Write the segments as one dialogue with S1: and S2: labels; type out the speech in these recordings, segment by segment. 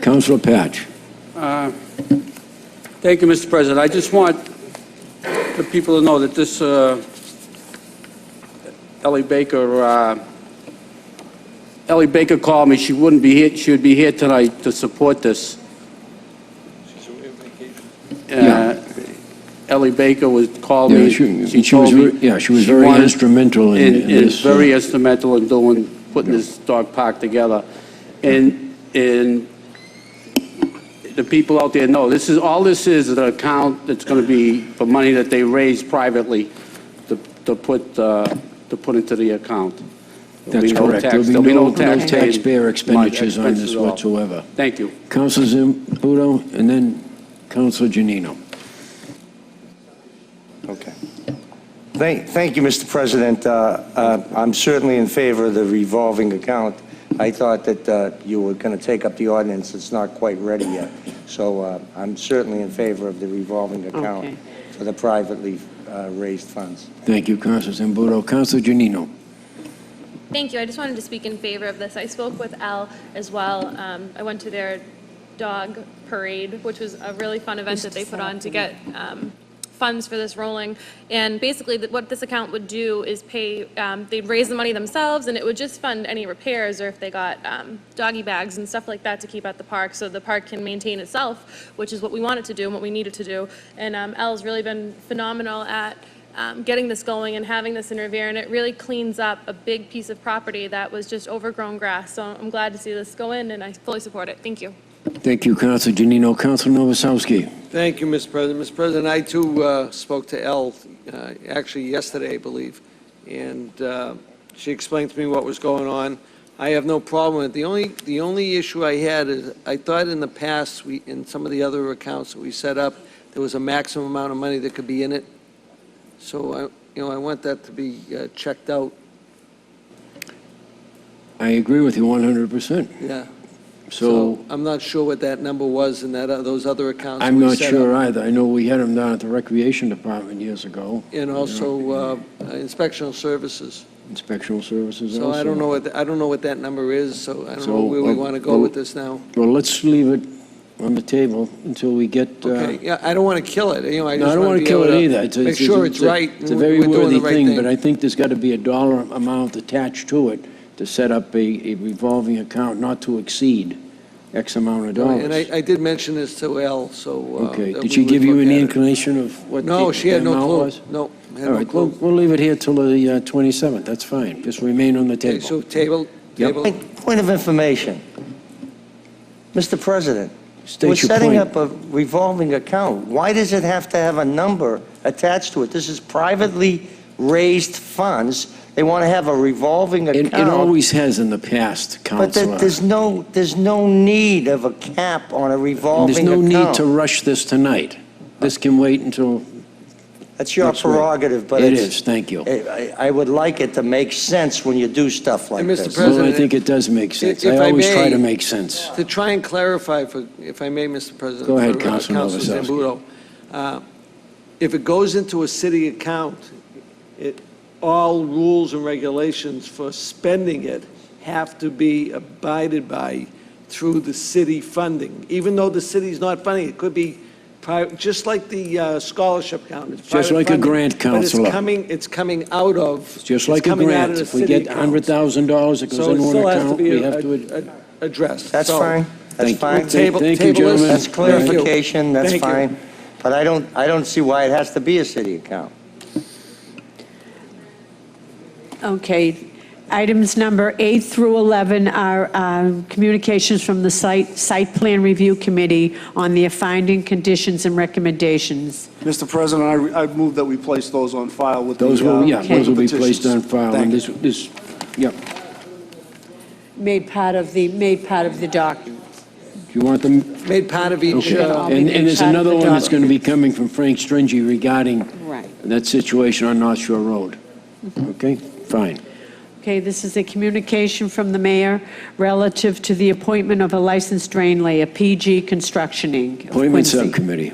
S1: Councilor Patch.
S2: Thank you, Mr. President. I just want the people to know that this uh, Ellie Baker, uh, Ellie Baker called me, she wouldn't be here, she would be here tonight to support this.
S1: Yeah.
S2: Uh, Ellie Baker was, called
S1: Yeah,
S2: me.
S1: she-
S2: She
S1: she was
S2: told me
S1: ver- yeah, she was
S2: she
S1: very
S2: wanted-
S1: instrumental in- in
S2: is
S1: this, uh,
S2: Very instrumental in doing, putting this dog park together. And, and the people out there know, this is, all this is, is an account that's going to be for money that they raise privately to, to put, uh, to put into the account. There'll be
S1: That's
S2: no
S1: correct.
S2: tax-
S1: There'll be no no
S2: tax paid,
S1: taxpayer
S2: my
S1: expenditures on
S2: expenses
S1: this
S2: at all.
S1: whatsoever.
S2: Thank you.
S1: Councilor Zambudo, and then Councilor Janino.
S3: Okay. Thank, thank you, Mr. President. Uh, uh, I'm certainly in favor of the revolving account. I thought that uh, you were going to take up the ordinance, it's not quite ready yet. So uh, I'm certainly in favor of the revolving
S4: Okay.
S3: account for the privately uh, raised funds.
S1: Thank you, Councilor Zambudo. Councilor Janino.
S5: Thank you. I just wanted to speak in favor of this. I spoke with Al as well. Um, I went to their dog parade, which was a really fun event that they put on to get um, funds for this rolling. And basically, that- what this account would do is pay, um, they'd raise the money themselves, and it would just fund any repairs or if they got um, doggy bags and stuff like that to keep at the park, so the park can maintain itself, which is what we wanted to do and what we needed to do. And um, Al's really been phenomenal at um, getting this going and having this in Revere, and it really cleans up a big piece of property that was just overgrown grass. So I'm glad to see this go in, and I fully support it. Thank you.
S1: Thank you, Councilor Janino. Councilor Novoselsky.
S6: Thank you, Mr. President. Mr. President, I too uh, spoke to Elle, uh, actually yesterday, I believe, and uh, she explained to me what was going on. I have no problem with it. The only, the only issue I had is, I thought in the past, we, in some of the other accounts that we set up, there was a maximum amount of money that could be in it. So I, you know, I want that to be uh, checked out,
S1: I agree with you 100%.
S6: yeah.
S1: So
S6: I'm not sure what that number was in that, uh, those other accounts that
S1: I'm
S6: we
S1: not
S6: set up.
S1: sure either. I know we had him down at the Recreation Department years ago,
S6: And also uh, inspectional services.
S1: Inspectional Services also.
S6: So I don't know what, I don't know what that number is, so I don't
S1: So,
S6: know where we
S1: uh,
S6: want to go with this now.
S1: Well, let's leave it on the table until we get... uh,
S6: Okay, yeah, I don't want to kill it, you know, I
S1: No,
S6: just
S1: I don't
S6: want
S1: want to
S6: to
S1: kill it
S6: be
S1: either.
S6: able
S1: It's-
S6: to make
S1: it's-
S6: sure
S1: it's
S6: it's
S1: a-
S6: right, and
S1: It's a
S6: we're
S1: very
S6: doing
S1: worthy
S6: the right
S1: thing, but
S6: thing.
S1: I think there's got to be a dollar amount attached to it to set up a a revolving account not to exceed X amount of
S6: And
S1: dollars.
S6: I, I did mention this to Elle, so. uh,
S1: Okay, did
S6: that we
S1: she
S6: would
S1: give you
S6: look
S1: any
S6: at it.
S1: inclination of what the
S6: No, she had
S1: the
S6: no
S1: amount
S6: clue,
S1: was?
S6: no, had
S1: All
S6: no
S1: right, we'll,
S6: clue.
S1: we'll leave it here till the uh, 27th, that's fine, just remain on the
S6: Okay,
S1: table.
S6: so table,
S1: Yep.
S6: table.
S3: Point of information. Mr. President,
S1: State
S3: we're
S1: your
S3: setting
S1: point.
S3: up a revolving account. Why does it have to have a number attached to it? This is privately raised funds. They want to have a revolving
S1: It
S3: account.
S1: it always has in the past,
S3: But
S1: Counselor.
S3: there- there's no, there's no need of a cap on a
S1: And
S3: revolving
S1: There's
S3: account.
S1: no need to rush this tonight. This can wait until,
S3: That's your
S1: That's right.
S3: prerogative, but
S1: it
S3: it's...
S1: is, thank you.
S3: I I- I would like it to make sense when you do stuff like
S6: And
S3: this.
S6: Mr.
S1: Well, I
S6: President,
S1: think it does make sense.
S6: if
S1: I
S6: I
S1: always try
S6: may-
S1: to make sense.
S6: To try and clarify, for, if I may, Mr. President.
S1: Go ahead,
S6: for, uh,
S1: Councilman
S6: Councilor
S1: Novoselsky.
S6: Zambudo. Uh, If it goes into a city account, it, all rules and regulations for spending it have to be abided by through the city funding, even though the city's not funding, it could be private, just like the uh, scholarship account. it's
S1: Just
S6: private
S1: like a
S6: funding,
S1: grant,
S6: But
S1: Counselor.
S6: it's coming, it's coming out of.
S1: It's just
S6: it's
S1: like a
S6: coming out
S1: grant.
S6: of the
S1: If we
S6: city
S1: get
S6: accounts.
S1: $100,000, it goes
S6: So it
S1: in one
S6: still has to
S1: account,
S6: be
S1: we have to... ad-
S6: a- a- addressed.
S3: That's
S6: So-
S3: fine. That's
S1: Thank you.
S3: fine.
S1: Thank-
S6: Table-
S1: Thank you,
S6: table is-
S1: gentlemen.
S3: That's
S6: Thank you.
S3: clarification, that's
S6: Thank you.
S3: fine. But I don't, I don't see why it has to be a city account.
S4: Okay, items number eight through 11 are um, communications from the Site, Site Plan Review Committee on their finding, conditions, and recommendations.
S7: Mr. President, I, I move that we place those on file with the.
S1: Those
S7: uh,
S1: will, yeah,
S4: Okay.
S1: those will be
S7: petitions.
S1: placed on file, and
S7: Thank you.
S1: this, this, yep.
S4: Made part of the, made part of the doc.
S1: Do you want them?
S6: Made part of each,
S1: Okay.
S6: uh,
S4: I'll be
S1: And, and there's
S4: inside
S1: another
S4: um, the
S1: one that's
S4: dock.
S1: going to be coming from Frank Stringy regarding
S4: Right. Mm-hmm.
S1: that situation on North Shore Road. Okay, fine.
S4: Okay, this is a communication from the mayor relative to the appointment of a licensed drain layer, PG Construction Inc. of
S1: Appointment
S4: Quincy.
S1: Subcommittee.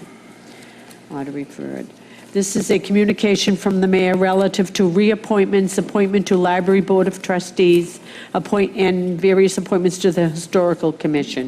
S4: Ought to refer it. This is a communication from the mayor relative to reappointments, appointment to Library Board of Trustees, appoint, and various appointments to the Historical Commission.